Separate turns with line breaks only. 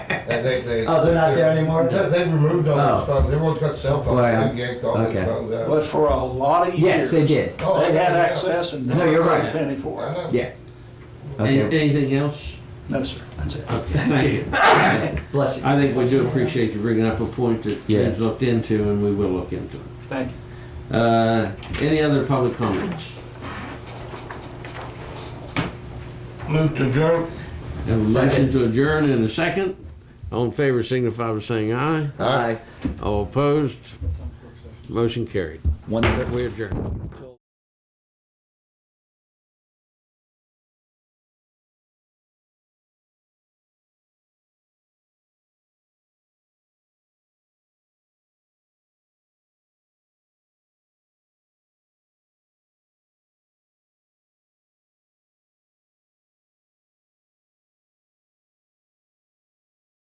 they, they, they.
Oh, they're not there anymore?
They- They've removed all
Oh.
those phones, everyone's got cell phones,
Right.
they yanked all
Okay.
those phones out.
But for a lot of
Yes,
years,
they
they
did.
Oh, I
had
know.
access and
No, you're right.
never paid a penny for
I
it.
know.
Yeah.
Any-
Okay.
Anything else?
No, sir, that's it.
Okay, thank you.
Bless you.
I think we do appreciate you bringing up a point that
Yeah.
is looked into, and we will look into it.
Thank you.
Uh, Any other public comments?
Move to adjourn.
Have a motion
Second.
to adjourn in a second. All in favor signify by saying aye.
Bye.
All opposed? Motion carried.
One other
We adjourn.